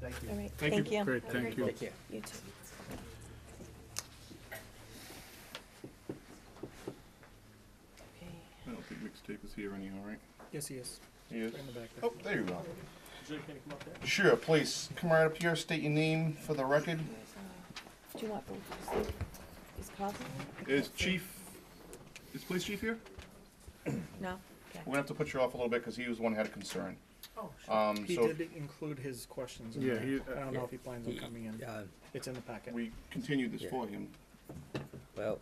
All right, Thank you. thank you. Great, thank you. Take care. You too. Okay. I don't think mixtape is here anyhow, right? Yes, he is. He is. Right in the back there. Oh, there you go. Sure, please, come right up here, state your name for the record. Where's, uh, Do you want both? Is- Is Cosmo? Is chief, is police chief here? No? We're gonna have to put you off a little bit, because he was the one who had a concern. Oh, sure. Um, He so did include his questions in Yeah, there. he- I don't know if he plans on coming in. Uh, It's in the packet. we continued this for him. Well,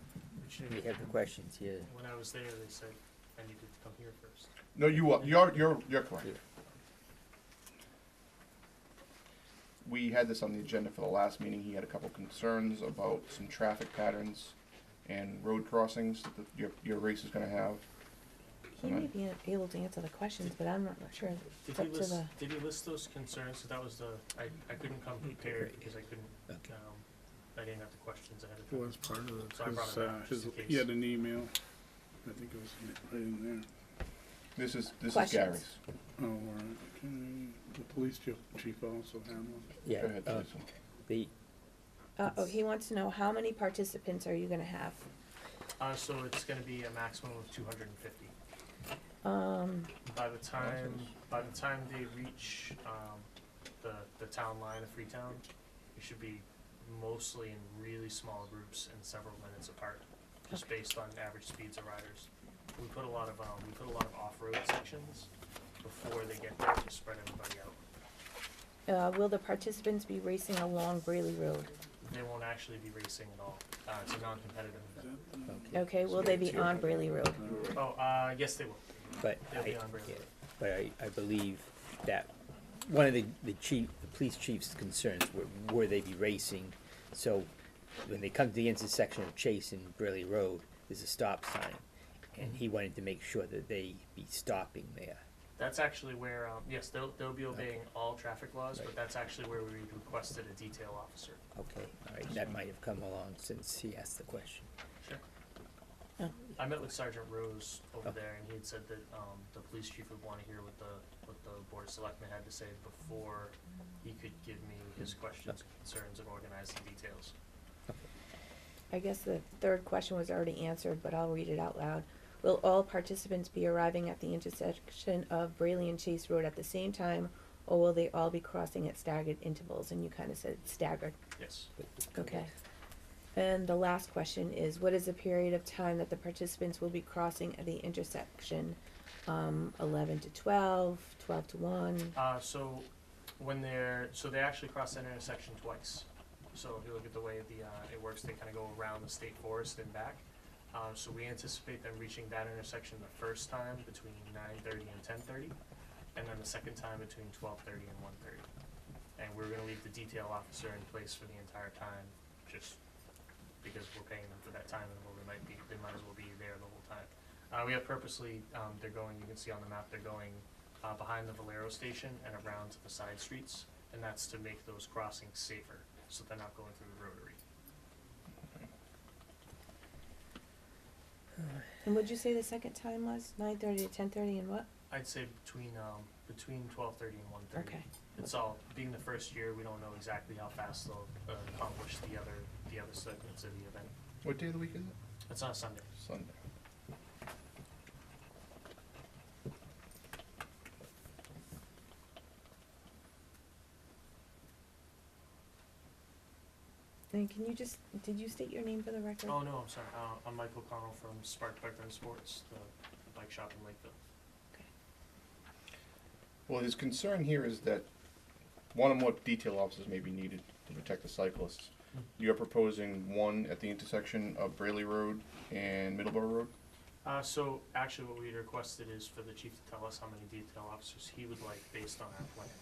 we have the questions here. When I was there, they said I needed to come here first. No, you are, you're, you're, you're correct. Yeah. We had this on the agenda for the last meeting, he had a couple concerns about some traffic patterns and road crossings that the- your, your race is gonna have. He may be able to answer the questions, but I'm not sure. Did It's he up to list, the, did he list those concerns? 'Cause that was the, I, I couldn't come prepared because I couldn't, Okay. um, I didn't have the questions ahead of Well, time. that's part of So I it, brought 'cause, it uh, up just his, in he case. had an email, I think it was right in This is, this is Questions? Gary's. there. Oh, all right, okay, the police chief, chief also had one. Yeah, Go ahead, uh, Teresa. the, uh, oh, he wants to know how many participants are you gonna have? Uh, so it's gonna be a maximum of two hundred and fifty. Um, By the time, by the time they reach, um, the, the town line of Freetown, it should be mostly in really small groups and several minutes apart, just based on average speeds of riders. We put a lot of, um, we put a lot of off-road sections before they get there to spread everybody out. uh, will the participants be racing along Brayley Road? They won't actually be racing at all. Uh, it's a non-competitive event. okay, Okay, will they be on Brayley Road? Oh, uh, yes, they will. but They'll I, be on Braille. yeah, but I, I believe that one of the, the chief, the police chief's concerns were, were they be racing? So when they come to the intersection of Chase and Briley Road, there's a stop sign. And he wanted to make sure that they be stopping there. That's actually where, um, yes, they'll, they'll be obeying all traffic laws, but Right. that's actually where we requested a detail officer. Okay, all right, that might have come along since he asked the question. Sure. Oh. I met with Sergeant Rose over Oh. there, and he had said that, um, the police chief would wanna hear what the, what the board of selectmen had to say before he could give me his questions, concerns, and organize the details. I guess the third question was already answered, but I'll read it out loud. Will all participants be arriving at the intersection of Brayley and Chase Road at the same time, or will they all be crossing at staggered intervals? And you kind of said staggered. Yes. Okay. And the last question is, what is the period of time that the participants will be crossing at the intersection? Um, eleven to twelve, twelve to one, Uh, so when they're, so they actually cross that intersection twice. So if you look at the way the, uh, it works, they kind of go around the state forest and back. Um, so we anticipate them reaching that intersection the first time between nine thirty and ten thirty, and then the second time between twelve thirty and one thirty. And we're gonna leave the detail officer in place for the entire time, just because we're paying them for that time and well, they might be, they might as well be there the whole time. Uh, we have purposely, um, they're going, you can see on the map, they're going uh, behind the Valero station and around to the side streets, and that's to make those crossings safer, so they're not going through the rotary. and would you say the second time was nine thirty to ten thirty and what? I'd say between, um, between twelve thirty and one thirty. Okay, It's all, being the first year, we don't know exactly how fast they'll uh, accomplish the other, the other segments of the event. What day of the week is it? It's on Sunday. Sunday. and can you just, did you state your name for the record? Oh, no, I'm sorry, uh, I'm Michael Connell from Spark Bike and Sports, the bike shop in Lakeville. Well, his concern here is that one or more detail officers may be needed to protect the cyclists. You're proposing one at the intersection of Brayley Road and Middleborough Road? Uh, so actually what we had requested is for the chief to tell us how many detail officers he would like based on our plan.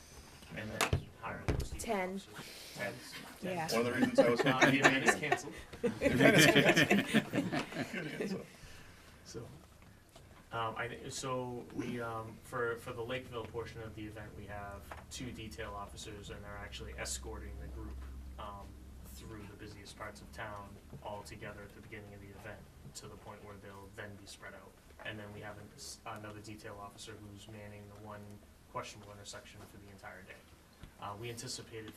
And then hire those detail Ten. officers. Ten. Ten. Yeah. One of the reasons I was Uh, happy the to event meet is him. canceled, so. Um, I, thi- so we, um, for, for the Lakeville portion of the event, we have two detail officers and they're actually escorting the group, um, through the busiest parts of town all together at the beginning of the event, to the point where they'll then be spread out. And then we have an- s- another detail officer who's manning the one questionable intersection for the entire day. Uh, we anticipated